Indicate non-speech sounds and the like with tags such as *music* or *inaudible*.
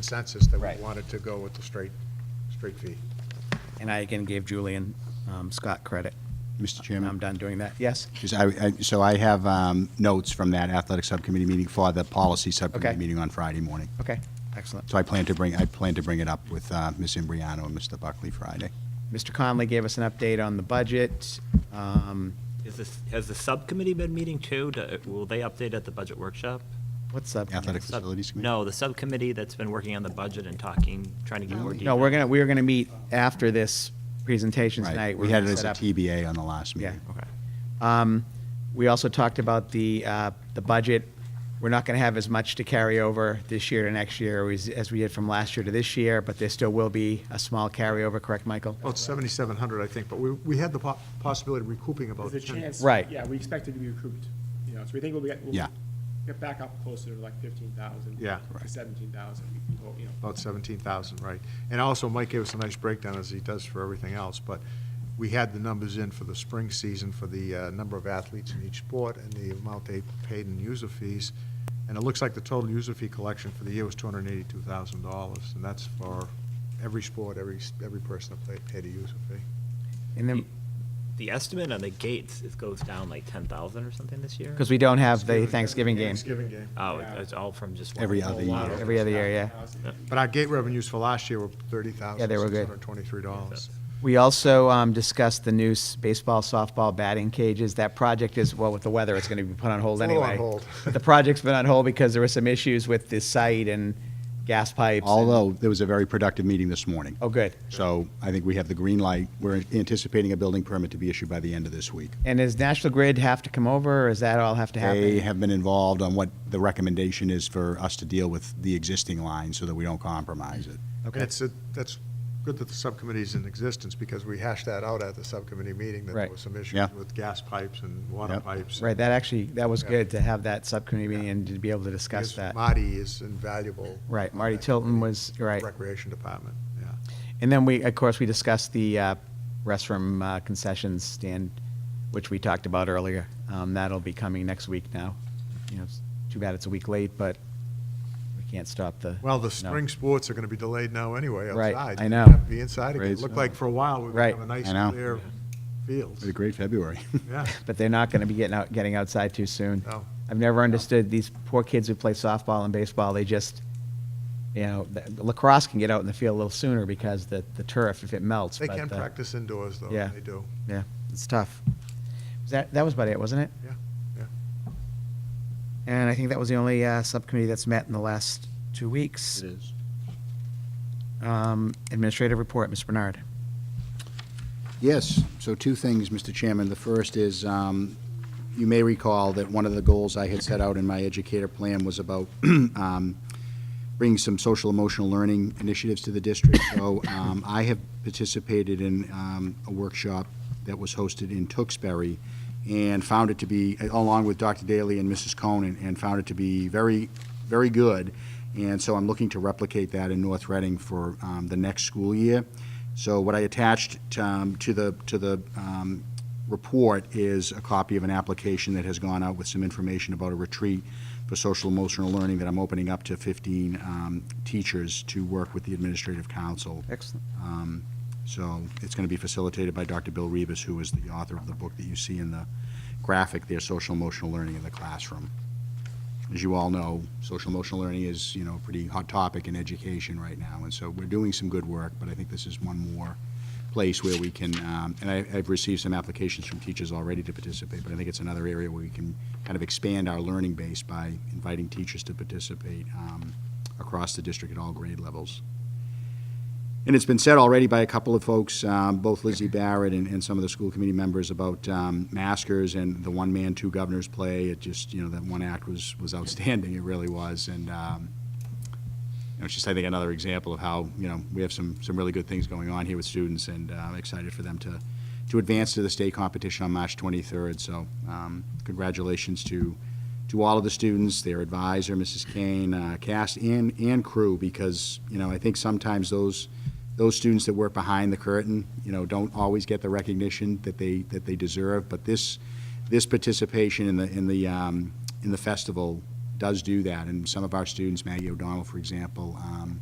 consensus that Right. we wanted to go with the straight, straight fee. And I again gave Julian um, Scott credit. Mr. I'm Chairman? done doing that. Yes? Because I, I- so I have um, notes from that athletic subcommittee meeting for the policy Okay. subcommittee meeting on Friday morning. Okay, excellent. So I plan to bring, I plan to bring it up with uh, Ms. Imbriano and Mr. Buckley Friday. Mr. Conley gave us an update on the budget. Um, Is this, has the subcommittee been meeting too? Do- Will they update at the budget workshop? What's up? Athletic Sub- facilities committee? No, the subcommittee that's been working on the budget and talking, trying to get more No, detail. we're gonna, we're gonna meet after this presentation tonight. Right, We're we had it gonna as a set up- TBA on the last Yeah. meeting. Okay. Um, We also talked about the, uh, the budget. We're not going to have as much to carry over this year to next year as as we did from last year to this year, but there still will be a small carryover, correct, Michael? Well, it's 7,700, I think, but we, we had the po- possibility of recouping about There's a 10. chance. Right. Yeah, we expect it to be recouped, you know, so we think we'll get, we'll Yeah. get back up closer to like fifteen thousand. Yeah. To seventeen thousand, we can go, you know. about 17,000, right. And also, Mike gave us a nice breakdown, as he does for everything else, but we had the numbers in for the spring season for the uh, number of athletes in each sport and the amount they paid in user fees. And it looks like the total user fee collection for the year was $282,000, and that's for every sport, every, every person that played, paid a user fee. And then, The estimate on the gates, it goes down like 10,000 or something this year? because we don't have the Thanksgiving game Thanksgiving game. Oh, it- it's all from just one. Every whole other lot year. of- every other year, yeah. But our gate revenues for last year were $30,623. Yeah, they were good. dollars We also um, discussed the new s- baseball, softball batting cages. That project is, well, with the weather, it's going to be put on hold It's a little anyway. on hold. But *laughs* the project's been on hold because there were some issues with the site and gas pipes. and- Although, there was a very productive meeting this morning. Oh, good. So I think we have the green light. We're anticipating a building permit to be issued by the end of this week. And does National Grid have to come over, or does that all have to happen? They have been involved on what the recommendation is for us to deal with the existing line so that we don't compromise it. And it's, a- that's good that the subcommittee's in existence, because we hashed that out at the subcommittee meeting, that there Right. was some issues Yeah. with gas pipes and water Yep. pipes. Right, that actually, that was Yeah. good to have that subcommittee meeting and to be able to discuss Because that. Marty is invaluable. Right, Marty Tilton was, right. Recreation Department, yeah. And then we, of course, we discussed the uh, restroom uh, concessions stand, which we talked about earlier. Um, That'll be coming next week now. You know, it's too bad it's a week late, but we can't stop the. Well, the no. spring sports are going to be delayed now anyway, Right, outside. I You know. have to Be inside again. It Grades. looked like for a while, we were Right. going to have a I know. nice, clear It's a field. great February. *laughs* Yeah, But they're not going to be getting out, getting outside too soon. No. I've never understood these poor kids who play softball and baseball, they just, you know, th- lacrosse can get out in the field a little sooner because the, the turf, if it melts. they but, can uh, practice indoors, though, yeah. they do, Yeah, it's tough. Was That, that was about it, wasn't it? yeah, yeah. And I think that was the only uh, subcommittee that's met in the last two weeks. It is. Administrative report, Ms. Bernard. Yes, so two things, Mr. Chairman. The first is, um, you may recall that one of the goals I had set out in my educator plan was about *clears throat* um, bringing some social emotional learning initiatives to the district. So um, I have participated in um, a workshop that was hosted in Tewksbury and found it to be, along with Dr. Daly and Mrs. Conan, and found it to be very, very good. And so I'm looking to replicate that in North Reading for um, the next school year. So what I attached um, to the, to the um, report is a copy of an application that has gone out with some information about a retreat for social emotional learning that I'm opening up to 15 um, teachers to work with the administrative council. Excellent. Um, So it's going to be facilitated by Dr. Bill Rivas, who is the author of the book that you see in the graphic there, Social Emotional Learning in the Classroom. As you all know, social emotional learning is, you know, a pretty hot topic in education right now, and so we're doing some good work, but I think this is one more place where we can, um, and I, I've received some applications from teachers already to participate, but I think it's another area where we can kind of expand our learning base by inviting teachers to participate um, across the district at all grade levels. And it's been said already by a couple of folks, um, both Lizzie Barrett and, and some of the school committee members about um, maskers and the one man, two governors play. It just, you know, that one act was, was outstanding. It really was. And um, you know, it's just, I think, another example of how, you know, we have some, some really good things going on here with students and uh, I'm excited for them to, to advance to the state competition on March 23rd. So um, congratulations to, to all of the students, their advisor, Mrs. Kane, uh, cast and, and crew, because, you know, I think sometimes those, those students that work behind the curtain, you know, don't always get the recognition that they, that they deserve. But this, this participation in the, in the, um, in the festival does do that, and some of our students, Maggie O'Donnell, for example, um,